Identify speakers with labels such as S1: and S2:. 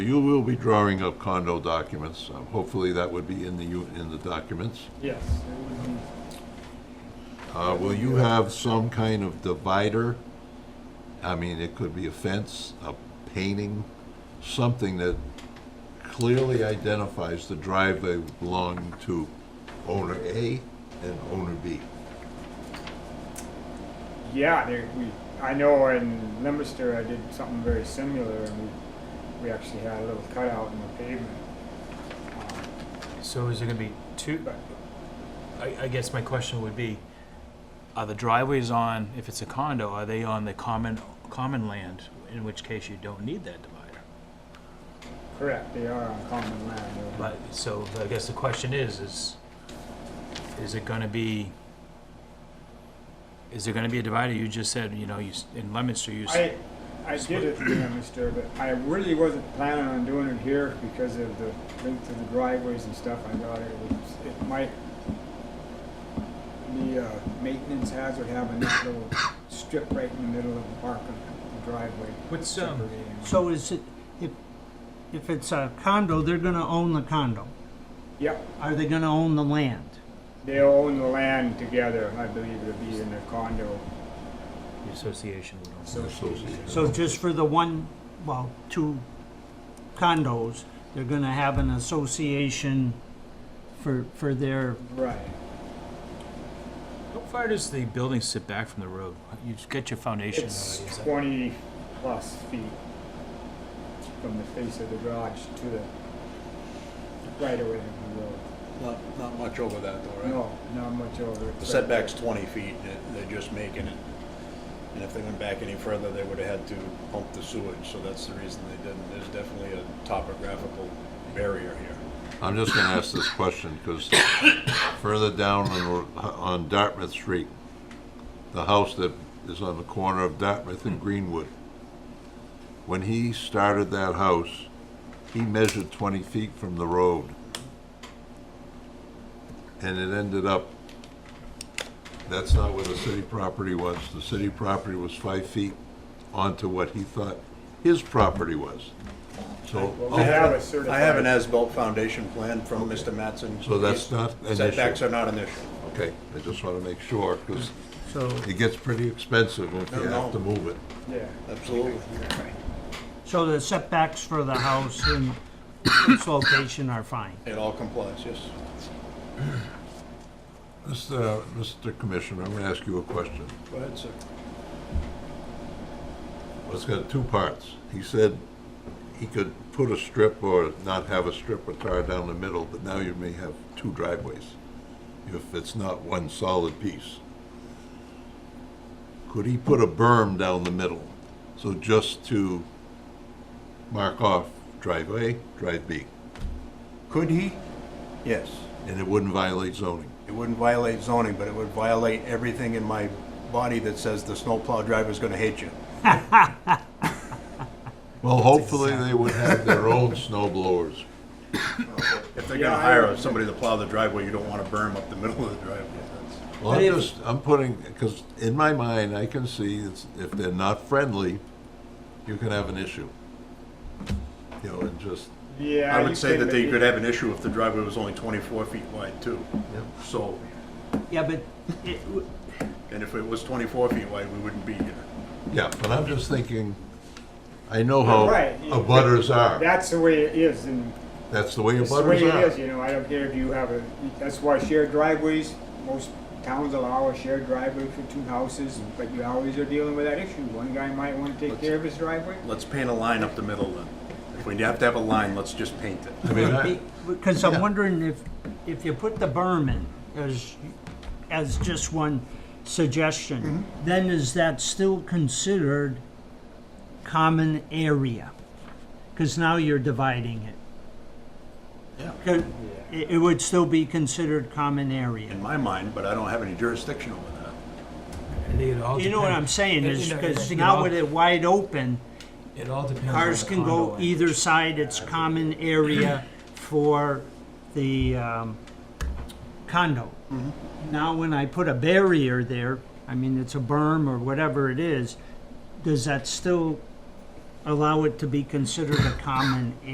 S1: you will be drawing up condo documents. Um, Hopefully, that would be in the, u- in the documents.
S2: Yes, it would be,
S1: Uh, Will you have some kind of divider? I mean, it could be a fence, a painting, something that clearly identifies the driveway belonging to owner A and owner B.
S2: yeah, there, we, I know in Leominster, I did something very similar, and we, we actually had a little cutout in the pavement. Um,
S3: So is there gonna be two,
S2: But
S3: I, I guess my question would be, are the driveways on, if it's a condo, are they on the common, common land? In which case you don't need that divider.
S2: Correct, they are on common land. they're-
S3: But, so I guess the question is, is, is it gonna be, is there gonna be a divider? You just said, you know, you, s- in Leominster, you, s-
S2: I, I did it in Leominster, but I really wasn't planning on doing it here because of the length of the driveways and stuff. I thought it was, it might, the uh, maintenance hazard having that little strip right in the middle of the park and the driveway.
S3: What's, um,
S2: separating.
S4: So is it, if, if it's a condo, they're gonna own the condo.
S2: Yep,
S4: Are they gonna own the land?
S2: they own the land together, I believe it'll be in their condo.
S3: the association would own.
S1: Association.
S4: So just for the one, well, two condos, they're gonna have an association for, for their,
S2: Right.
S3: How far does the building sit back from the road? You just get your foundation.
S2: It's
S3: already, is that-
S2: twenty plus feet from the face of the garage to the right away of the road.
S5: Not, not much over that though, right?
S2: No, not much over. it.
S5: The setback's twenty feet, and it- they're just making it. And if they went back any further, they would have had to pump the sewage, so that's the reason they didn't. There's definitely a topographical barrier here.
S1: I'm just gonna ask this question, because further down on, on Dartmouth Street, the house that is on the corner of Dartmouth and Greenwood, when he started that house, he measured twenty feet from the road. And it ended up, that's not where the city property was. The city property was five feet onto what he thought his property was. So
S2: Well, we have a
S5: I have
S2: certified,
S5: an as-built foundation plan from Mr. Mattson.
S1: So that's not an issue.
S5: Setbacks are not an issue.
S1: Okay, I just want to make sure, because
S4: so,
S1: it gets pretty expensive if you
S5: No,
S1: have to
S5: no.
S1: move it.
S2: yeah,
S5: Absolutely.
S4: so the setbacks for the house and its location are fine.
S5: It all complies, yes.
S1: Mr. Mr. Commissioner, I'm going to ask you a question.
S5: Go ahead, sir.
S1: Well, It's got two parts. He said he could put a strip or not have a strip or tar down the middle, but now you may have two driveways if it's not one solid piece. Could he put a berm down the middle? So just to mark off drive A, drive B,
S5: Could he? Yes.
S1: and it wouldn't violate zoning.
S5: It wouldn't violate zoning, but it would violate everything in my body that says the snowplow driver's gonna hate you.
S1: Well, hopefully they would have their own snow blowers.
S5: If they're
S2: Yeah,
S5: gonna
S2: I
S5: hire
S2: would-
S5: somebody to plow the driveway, you don't wanna burn up the middle of the driveway. That's-
S1: Well, I'm just, I'm putting, because in my mind, I can see it's- if they're not friendly, you can have an issue. You know, and just,
S2: yeah.
S5: I
S2: you
S5: would say
S2: can-
S5: that they could have an issue if the driveway was only twenty-four feet wide too. So,
S4: Yeah, but it,
S5: and if it was twenty-four feet wide, we wouldn't be here.
S1: yeah, but I'm just thinking, I know
S2: Right.
S1: how butters are.
S2: That's the way it is, and
S1: That's the way
S2: it's the way
S1: butters
S2: it
S1: are.
S2: is, you know, I don't care if you have a, that's why shared driveways, most towns allow a shared driveway for two houses, but you always are dealing with that issue. One guy might wanna take care of his driveway,
S5: Let's paint a line up the middle then. If we have to have a line, let's just paint it.
S1: I mean, I-
S4: Because I'm wondering if, if you put the berm in as, as just one suggestion, then is that still considered common area? Because now you're dividing it.
S5: Yeah.
S4: Could- It, it would still be considered common area.
S5: In my mind, but I don't have any jurisdiction over that.
S3: I think it all
S4: You know what I'm
S3: depends-
S4: saying,
S3: I-
S4: is
S3: I
S4: because
S3: think it
S4: now
S3: all-
S4: with it wide open,
S3: It all depends on
S4: cars
S3: the
S4: can go
S3: condo
S4: either
S3: language.
S4: side, it's common area for the um, condo.
S3: Mm-hmm.
S4: Now, when I put a barrier there, I mean, it's a berm or whatever it is, does that still allow it to be considered a common